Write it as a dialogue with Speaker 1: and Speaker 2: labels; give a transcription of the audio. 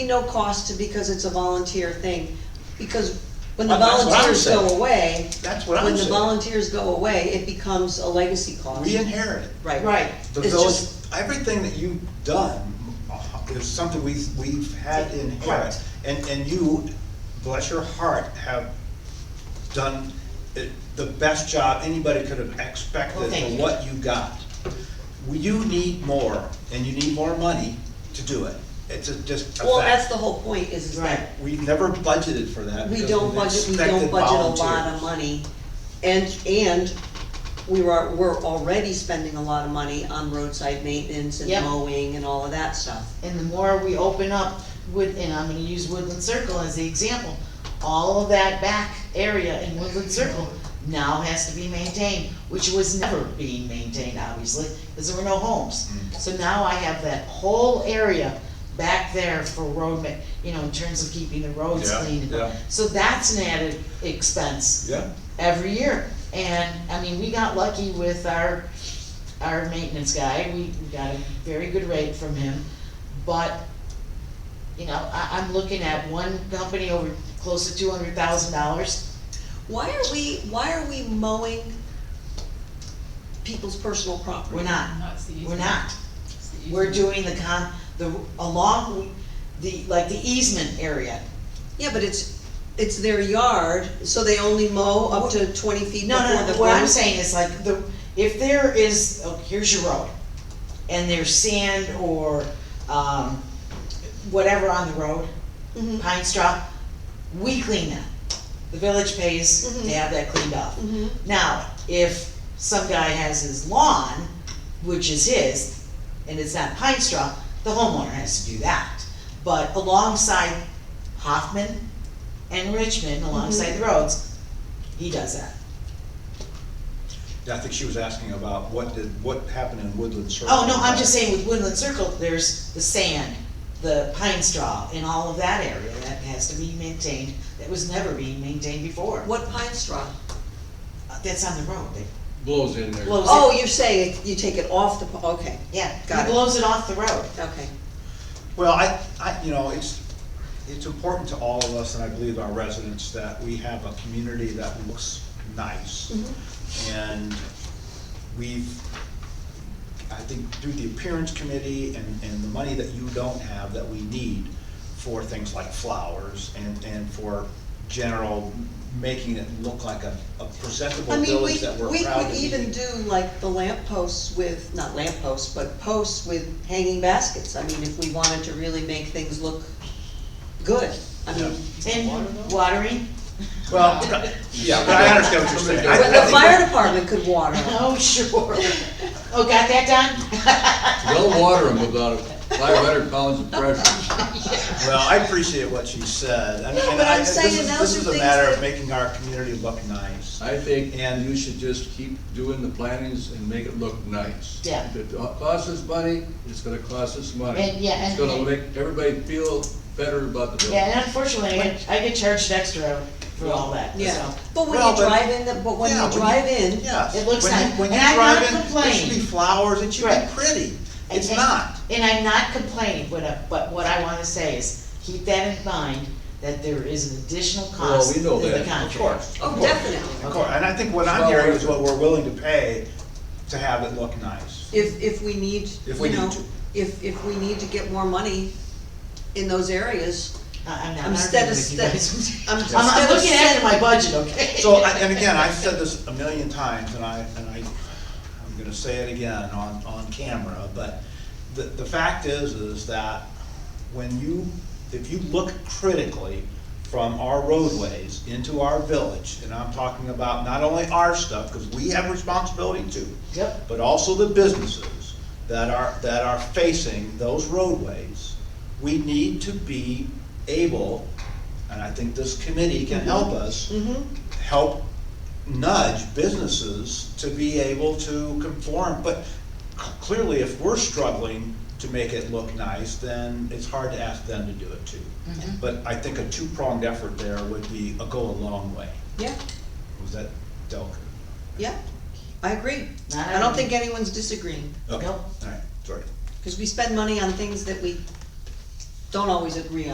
Speaker 1: no cost to, because it's a volunteer thing, because when the
Speaker 2: Well, that's what I'm
Speaker 1: volunteers go
Speaker 2: saying.
Speaker 1: away,
Speaker 2: That's what
Speaker 1: when
Speaker 2: I'm
Speaker 1: the
Speaker 2: saying.
Speaker 1: volunteers go away, it becomes a legacy cost.
Speaker 2: We inherit it.
Speaker 1: Right.
Speaker 3: Right.
Speaker 2: The
Speaker 1: It's
Speaker 2: village,
Speaker 1: just-
Speaker 2: everything that you've done is something we've, we've had inherit.
Speaker 3: Correct.
Speaker 2: And, and you, bless your heart, have done it- the best job anybody could have
Speaker 3: Well,
Speaker 2: expected
Speaker 3: thank
Speaker 2: for
Speaker 3: you.
Speaker 2: what you got. You need more, and you need more money to do it. It's a, just a
Speaker 1: Well, that's
Speaker 2: fact.
Speaker 1: the whole point, is, is
Speaker 3: Right.
Speaker 1: that
Speaker 2: We never budgeted for that.
Speaker 1: we
Speaker 2: because
Speaker 1: don't
Speaker 2: we
Speaker 1: budget, we
Speaker 2: expected
Speaker 1: don't budget a lot
Speaker 2: volunteers.
Speaker 1: of money. And, and we were, we're already spending a lot of money on roadside maintenance and
Speaker 3: Yep.
Speaker 1: mowing and all of that stuff.
Speaker 3: And the more we open up Wood, and I'm gonna use Woodland Circle as the example, all of that back area in Woodland Circle now has to be maintained, which was never being maintained, obviously, because there were no homes.
Speaker 2: Mm.
Speaker 3: So now I have that whole area back there for road ma- you know, in terms of keeping the roads
Speaker 2: Yeah,
Speaker 3: clean.
Speaker 2: yeah.
Speaker 3: So that's an added expense
Speaker 2: Yeah,
Speaker 3: every year. And, I mean, we got lucky with our, our maintenance guy, we, we got a very good rate from him. But, you know, I, I'm looking at one company over close to two hundred thousand dollars.
Speaker 1: Why are we, why are we mowing people's personal property?
Speaker 3: We're not,
Speaker 4: No, it's the
Speaker 3: we're
Speaker 4: easement.
Speaker 3: not.
Speaker 4: It's the
Speaker 3: We're
Speaker 4: easement.
Speaker 3: doing the con, the, along the, like the easement area.
Speaker 1: Yeah, but it's, it's their yard, so they only mow up to twenty feet
Speaker 3: No,
Speaker 1: before the.
Speaker 3: no, no, what I'm
Speaker 1: road?
Speaker 3: saying is like, the, if there is, oh, here's your road, and there's sand or, um, whatever on the road,
Speaker 1: Mhm,
Speaker 3: pine straw, we clean that. The village pays to
Speaker 1: Mhm.
Speaker 3: have that cleaned up.
Speaker 1: mhm.
Speaker 3: Now, if some guy has his lawn, which is his, and it's not pine straw, the homeowner has to do that. But alongside Hoffman and Richmond, alongside the roads, he does that.
Speaker 2: Yeah, I think she was asking about what did, what happened in Woodland Circle.
Speaker 3: Oh, no, I'm just saying with Woodland Circle, there's the sand, the pine straw, and all of that area that has to be maintained, that was never being maintained before.
Speaker 1: What pine straw?
Speaker 3: Uh, That's on the road, they
Speaker 5: blows in there.
Speaker 3: blows it.
Speaker 1: Oh, you're saying you take it off the, po- okay,
Speaker 3: Yeah,
Speaker 1: Got
Speaker 3: he
Speaker 1: it.
Speaker 3: blows it off the road.
Speaker 1: okay.
Speaker 2: Well, I, I, you know, it's, it's important to all of us, and I believe our residents, that we have a community that looks nice.
Speaker 1: Mm-hmm.
Speaker 2: And we've, I think through the appearance committee and, and the money that you don't have that we need for things like flowers and, and for general making it look like a, a presentable
Speaker 1: I mean, we,
Speaker 2: village that we're
Speaker 1: we
Speaker 2: proud
Speaker 1: could
Speaker 2: to be.
Speaker 1: even do like the lamp posts with, not lamp posts, but posts with hanging baskets. I mean, if we wanted to really make things look good, I mean.
Speaker 3: And watering,
Speaker 2: Well, yeah, but I understand what you're saying. I- I
Speaker 1: But the
Speaker 2: think
Speaker 1: fire department could water them.
Speaker 3: oh, sure. Oh, got that done?
Speaker 5: They'll water them without five hundred pounds of pressure.
Speaker 2: Well, I appreciate what she said, and, and
Speaker 1: but
Speaker 2: I,
Speaker 1: I'm
Speaker 2: this
Speaker 1: saying
Speaker 2: is,
Speaker 1: those
Speaker 2: this
Speaker 1: are
Speaker 2: is a
Speaker 1: things
Speaker 2: matter
Speaker 1: that-
Speaker 2: of making our community look nice.
Speaker 5: I think
Speaker 2: And-
Speaker 5: you should just keep doing the plantings and make it look nice.
Speaker 3: Yeah.
Speaker 5: If it costs us money, it's gonna cost us money.
Speaker 3: And, yeah,
Speaker 5: It's
Speaker 3: and-
Speaker 5: gonna make everybody feel better about the
Speaker 3: Yeah,
Speaker 5: building.
Speaker 3: and unfortunately, I get- I get charged extra for all that,
Speaker 1: Yeah,
Speaker 3: so.
Speaker 1: but when
Speaker 2: Well,
Speaker 1: you
Speaker 2: but-
Speaker 1: drive in, the- but when
Speaker 2: Yeah,
Speaker 1: you drive in,
Speaker 2: Yes.
Speaker 3: it looks
Speaker 2: When you-
Speaker 3: nice.
Speaker 2: When you
Speaker 3: And I'm not
Speaker 2: drive in, there should be
Speaker 3: complaining.
Speaker 2: flowers, it should be
Speaker 3: Right.
Speaker 2: pretty,
Speaker 3: And-
Speaker 2: it's
Speaker 3: and-
Speaker 2: not.
Speaker 3: And I'm not complaining, but, I- but what I wanna say is, keep that in mind, that there is an additional
Speaker 5: Well,
Speaker 3: cost
Speaker 5: we
Speaker 3: in
Speaker 5: know that,
Speaker 3: the
Speaker 5: of
Speaker 3: contract.
Speaker 1: oh,
Speaker 2: course.
Speaker 1: definitely.
Speaker 2: Of course, and I think what I'm
Speaker 5: Well,
Speaker 2: hearing
Speaker 5: we're-
Speaker 2: is what we're willing to pay to have it look nice.
Speaker 1: If, if we need,
Speaker 2: If we
Speaker 1: you know,
Speaker 2: need to.
Speaker 1: if, if we need to get more money in those areas,
Speaker 3: I- I'm not
Speaker 1: instead
Speaker 3: arguing
Speaker 1: of,
Speaker 3: with you
Speaker 1: sta- I'm,
Speaker 3: guys.
Speaker 1: instead
Speaker 3: I'm, I'm
Speaker 1: of
Speaker 3: looking after
Speaker 1: setting,
Speaker 3: my budget, okay?
Speaker 2: So, I- and again, I've said this a million times, and I, and I, I'm gonna say it again on, on camera, but the, the fact is, is that when you, if you look critically from our roadways into our village, and I'm talking about not only our stuff, because we have responsibility too,
Speaker 3: Yep,
Speaker 2: but also the businesses that are, that are facing those roadways. We need to be able, and I think this committee can help us,
Speaker 1: mm-hmm,
Speaker 2: help nudge businesses to be able to conform. But c- clearly, if we're struggling to make it look nice, then it's hard to ask them to do it too. But I think a two-pronged effort there would be, a go a long way.
Speaker 1: yeah,
Speaker 2: Was that Delker?
Speaker 1: yeah, I agree.
Speaker 3: Not
Speaker 1: I don't
Speaker 3: arguing.
Speaker 1: think anyone's disagreeing,
Speaker 2: Okay,
Speaker 3: Nope.
Speaker 2: all right, sorry.
Speaker 1: because we spend money on things that we don't always agree on.